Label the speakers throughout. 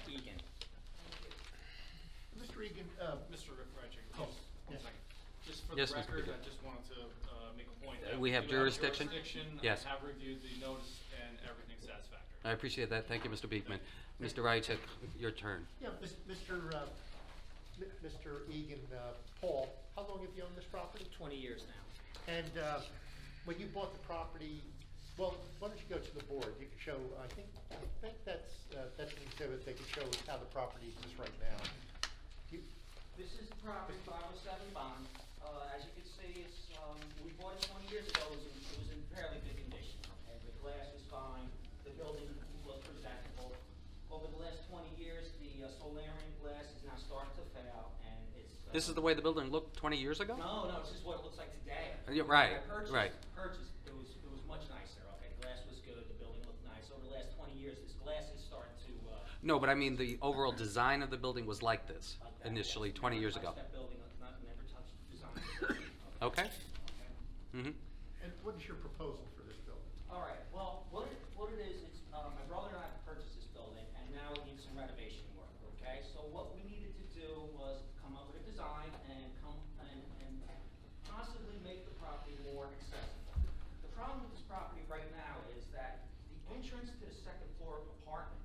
Speaker 1: uh,
Speaker 2: Yes,
Speaker 3: Yes,
Speaker 2: Mr.
Speaker 3: Mr.
Speaker 2: Pidgeot.
Speaker 3: I just wanted to uh, make a point.
Speaker 2: Uh,
Speaker 3: that
Speaker 2: we have
Speaker 3: do
Speaker 2: jurisdiction?
Speaker 3: jurisdiction.
Speaker 2: Yes.
Speaker 3: I have reviewed the notice and everything's satisfactory.
Speaker 2: I appreciate that. Thank you, Mr. Beekman. Mr. Ryacek, your turn.
Speaker 1: Yeah, mis- Mr. uh, mi- Mr. Egan, uh, Paul, how long have you owned this property?
Speaker 4: 20 years now.
Speaker 1: And uh, when you bought the property, well, why don't you go to the board? You can show, I think, I think that's, uh, that's an exhibit that can show how the property is right now. You-
Speaker 4: This is the property, 507 Bond. Uh, As you can see, it's, um, we bought it 20 years ago, it was in- it was in fairly good condition. And The glass was fine, the building was presentable. Over the last 20 years, the uh, solarium glass is now starting to fail, and it's... uh,
Speaker 2: This is the way the building looked 20 years ago?
Speaker 4: No, no, it's just what it looks like today.
Speaker 2: Uh, yeah,
Speaker 4: I
Speaker 2: right,
Speaker 4: purchased-
Speaker 2: right.
Speaker 4: Purchased, it was, it was much nicer, okay? Glass was good, the building looked nice. Over the last 20 years, this glass is starting to... uh,
Speaker 2: No, but I mean, the overall design of the building was like this
Speaker 4: like that,
Speaker 2: initially,
Speaker 4: yes. Never
Speaker 2: 20 years
Speaker 4: touched
Speaker 2: ago.
Speaker 4: that building, not- never touched the design of the building.
Speaker 2: Okay?
Speaker 4: Okay.
Speaker 2: Mhm.
Speaker 1: And what is your proposal for this building?
Speaker 4: All right, well, what it, what it is, it's, uh, my brother and I purchased this building, and now we need some renovation work, okay? So what we needed to do was come up with a design and come, and, and possibly make the property more accessible. The problem with this property right now is that the entrance to the second floor apartment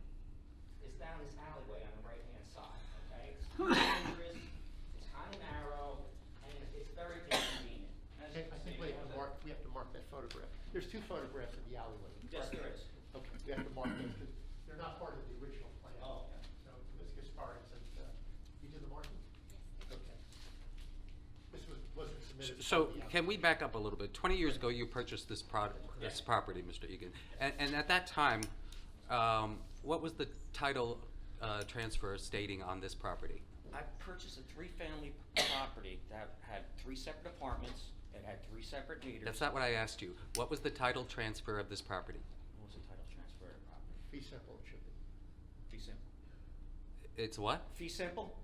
Speaker 4: is down this alleyway on the right-hand side, okay? It's kind of dangerous, it's kind of narrow, and it's very inconvenient. As you
Speaker 1: Okay, I
Speaker 4: can
Speaker 1: think
Speaker 4: see,
Speaker 1: we
Speaker 4: we have
Speaker 1: have to
Speaker 4: the-
Speaker 1: mark, we have to mark that photograph. There's two photographs in the alleyway.
Speaker 4: Yes, there is.
Speaker 1: Okay, we have to mark those because they're not part of the original plan.
Speaker 4: Oh, okay.
Speaker 1: So Ms. Gaspari said, uh, you did the marking? Okay. This was, wasn't submitted. to
Speaker 2: So
Speaker 1: the applicant.
Speaker 2: can we back up a little bit? 20 years ago, you purchased this prod- this
Speaker 4: Yeah.
Speaker 2: property, Mr. Egan. And and at that time, um, what was the title uh, transfer stating on this property?
Speaker 4: I purchased a three-family property that had three separate apartments, that had three separate meters.
Speaker 2: That's not what I asked you. What was the title transfer of this property?
Speaker 4: What was the title transfer of the property?
Speaker 1: Be simple, it should be.
Speaker 4: Fee simple.
Speaker 2: It's what?
Speaker 4: Fee simple?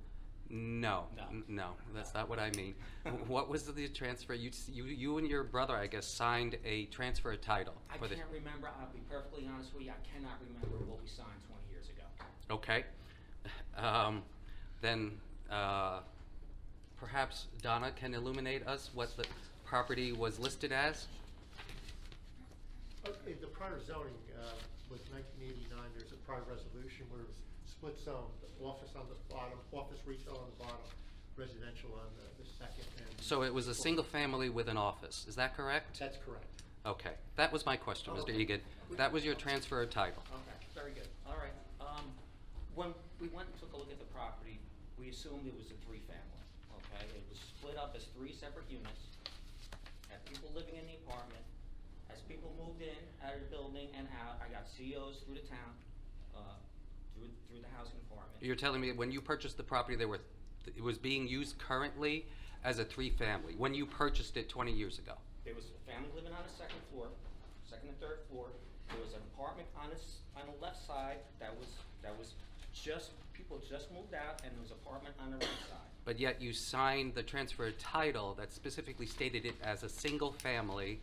Speaker 2: No,
Speaker 4: No.
Speaker 2: n- no, that's not what I mean. Wh- What was the transfer, you, s- you you and your brother, I guess, signed a transfer title?
Speaker 4: I
Speaker 2: for the-
Speaker 4: can't remember, I'll be perfectly honest with you, I cannot remember what we signed twenty years ago.
Speaker 2: Okay. Um, Then uh, perhaps Donna can illuminate us what the property was listed as?
Speaker 1: Okay, the prior zoning uh, was 1989, there's a prior resolution where it was split zone, office on the bottom, office retail on the bottom, residential on the- the second and.
Speaker 2: So it was a single family with an office, is that correct?
Speaker 1: That's correct.
Speaker 2: Okay, that was my question, Mr.
Speaker 4: Oh, Okay.
Speaker 2: Egan. That was your transfer title.
Speaker 4: Okay, very good, all right. Um, when we went and took a look at the property, we assumed it was a three-family, okay? It was split up as three separate units, had people living in the apartment. As people moved in, out of the building and out, I got COs through the town, uh, through, through the housing department.
Speaker 2: You're telling me when you purchased the property, there were, it was being used currently as a three-family, when you purchased it 20 years ago?
Speaker 4: There was a family living on the second floor, second and third floor. There was an apartment on this, on the left side that was, that was just, people just moved out, and there was apartment on the right side.
Speaker 2: But yet you signed the transfer title that specifically stated it as a single family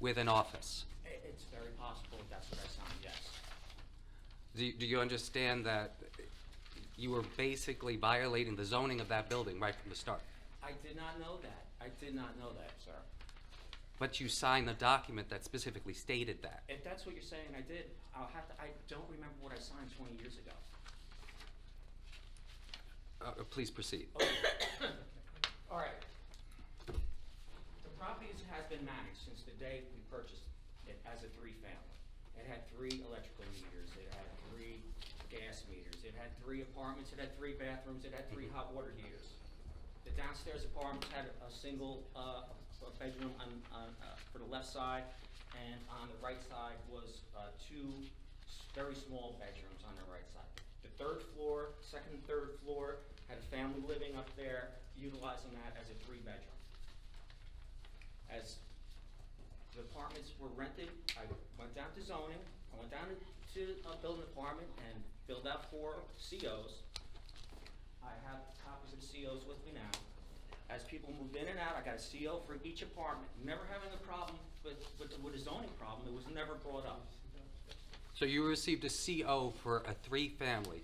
Speaker 2: with an office.
Speaker 4: I- It's very possible that's what I signed, yes.
Speaker 2: Do you do you understand that you were basically violating the zoning of that building right from the start?
Speaker 4: I did not know that. I did not know that, sir.
Speaker 2: But you signed the document that specifically stated that.
Speaker 4: If that's what you're saying I did, I'll have to, I don't remember what I signed 20 years ago.
Speaker 2: Uh, uh, Please proceed.
Speaker 4: All right. The property is- has been managed since the day we purchased it as a three-family. It had three electrical meters, it had three gas meters, it had three apartments, it had three bathrooms, it had three hot water heaters. The downstairs apartments had a single uh, a bedroom on, on, uh, for the left side, and on the right side was uh, two s- very small bedrooms on the right side. The third floor, second and third floor, had a family living up there, utilizing that as a three-bedroom. As the apartments were rented, I went down to zoning, I went down to a building department and filled out four COs. I have copies of the COs with me now. As people moved in and out, I got a CO for each apartment, never having a problem with, with, with a zoning problem, it was never brought up.
Speaker 2: So you received a CO for a three-family.